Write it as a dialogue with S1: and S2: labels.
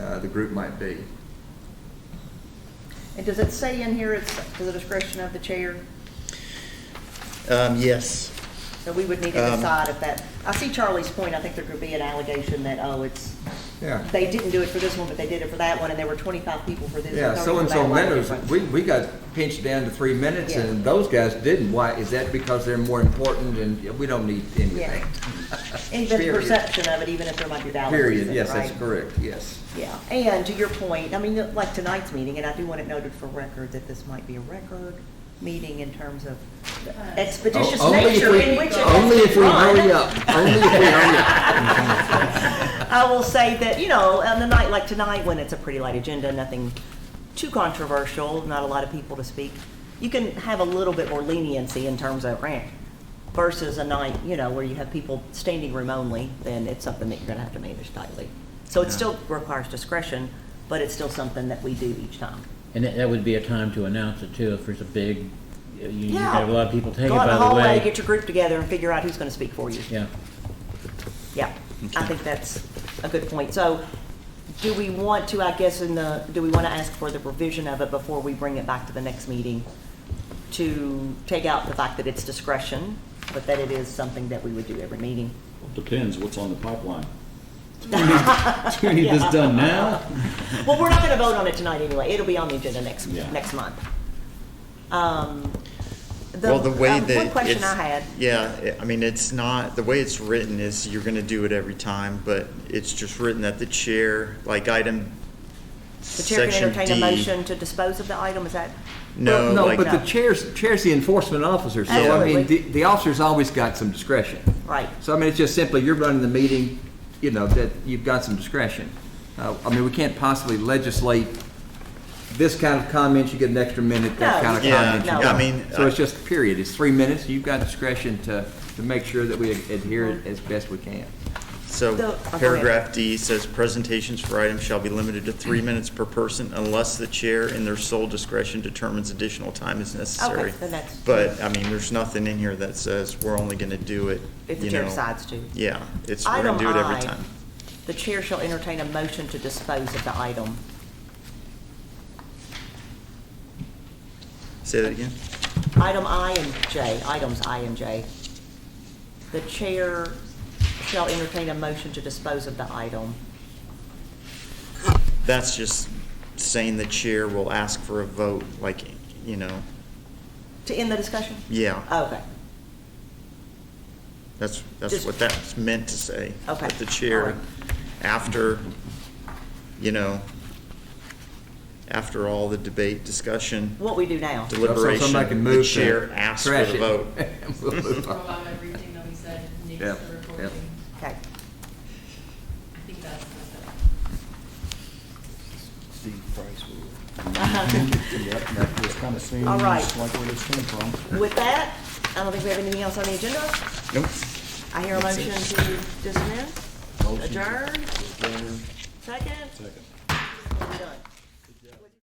S1: uh, the group might be.
S2: And does it say in here it's to the discretion of the chair?
S3: Um, yes.
S2: So we would need to
S3: Um,
S2: decide if that, I see Charlie's point, I think there could be an allegation that, oh, it's,
S1: Yeah.
S2: they didn't do it for this one, but they did it for that one, and there were twenty-five people for this.
S1: Yeah,
S2: and 30 for
S1: so-and-so
S2: that one,
S1: minutes,
S2: different.
S1: we, we got pinched down to three minutes,
S2: Yeah.
S1: and those guys didn't. Why, is that because they're more important and we don't need anything?
S2: Yeah. And the
S1: Period.
S2: perception of it, even if there might be valid
S1: Period,
S2: reason,
S1: yes, that's
S2: right?
S1: correct, yes.
S2: Yeah, and to your point, I mean, like tonight's meeting, and I do want it noted for record that this might be a record meeting in terms of the expeditious
S1: O- only if
S2: nature
S1: we-
S2: in which it
S1: Only
S2: has
S1: if we
S2: been run.
S1: hurry up, only if we hurry up.
S2: I will say that, you know, on a night like tonight, when it's a pretty light agenda, nothing too controversial, not a lot of people to speak, you can have a little bit more leniency in terms of rant versus a night, you know, where you have people standing room only, then it's something that you're gonna have to manage tightly. So it still requires discretion, but it's still something that we do each time.
S4: And that, that would be a time to announce it too, if there's a big, you, you have a lot of people take it,
S2: Go out
S4: by
S2: in the
S4: the
S2: hallway,
S4: way.
S2: get your group together and figure out who's gonna speak for you.
S4: Yeah,
S2: Yeah, I think that's a good point. So do we want to, I guess, in the, do we want to ask for the revision of it before we bring it back to the next meeting? To take out the fact that it's discretion, but that it is something that we would do every meeting?
S5: Depends what's on the pipeline. Do we need this done now?
S2: Well, we're not going to vote on it tonight anyway. It'll be on the agenda next,
S5: Yeah.
S2: next month. Um,
S3: Well, the way
S2: uh,
S3: that.
S2: One question
S3: it's-
S2: I had.
S3: Yeah, it- I mean, it's not, the way it's written is you're gonna do it every time, but it's just written that the chair, like item.
S2: The chair can
S3: section
S2: entertain a
S3: D.
S2: motion to dispose of the item, is that?
S3: No,
S1: No,
S3: like,
S1: but the
S2: that.
S1: chair's, chair's the enforcement officer, so I mean, the,
S2: Absolutely.
S1: the officer's always got some discretion.
S2: Right.
S1: So I mean, it's just simply, you're running the meeting, you know, that you've got some discretion. Uh, I mean, we can't possibly legislate this kind of comment, you get an extra minute, that
S2: No,
S1: kind of
S3: Yeah,
S1: comment. you
S2: no.
S1: don't.
S3: I mean,
S1: So it's
S3: I-
S1: just period, it's three minutes, you've got discretion to, to make sure that we adhere it as best we can.
S3: so
S2: the- oh, go ahead.
S3: paragraph D says presentations for items shall be limited to
S2: Mm-hmm.
S3: three minutes per person unless the chair in their sole discretion determines additional time is necessary.
S2: then that's-
S3: But, I mean, there's nothing in here that says we're only gonna do it,
S2: If the
S3: you
S2: chair
S3: know.
S2: decides to.
S3: Yeah, it's, we're gonna
S2: Item
S3: do it every
S2: I.
S3: time.
S2: The chair shall entertain a motion to dispose of the item.
S3: Say that again?
S2: Item I and J, items I and J. The chair shall entertain a motion to dispose of the item.
S3: That's just saying the chair will ask for a vote, like, you know,
S2: To end the discussion? Oh,
S3: yeah,
S2: Okay,
S3: that's, that's
S2: Just-
S3: what that's meant to say.
S2: Okay,
S3: That the chair,
S2: alright.
S3: after, you know, after all the debate, discussion,
S2: what we do now?
S1: So
S3: deliberation,
S1: somebody can move
S3: the
S1: to
S3: chair asks for
S1: trash
S3: the
S1: it.
S3: vote.
S1: We'll move
S6: Throw
S1: on.
S6: out everything that we said, Nick's
S1: Yeah,
S6: the
S1: yeah.
S6: recording.
S2: Okay,
S6: I think that's the stuff.
S7: Steve Price.
S2: Yep,
S7: It's kind of seems
S2: All right.
S7: like where this came from.
S2: with that, I don't think we have anything else on the agenda.
S3: Nope.
S2: I hear a
S3: That's
S2: motion
S3: it.
S2: to dismiss, adjourn,
S7: Motion to adjourn.
S2: second? Second. Done.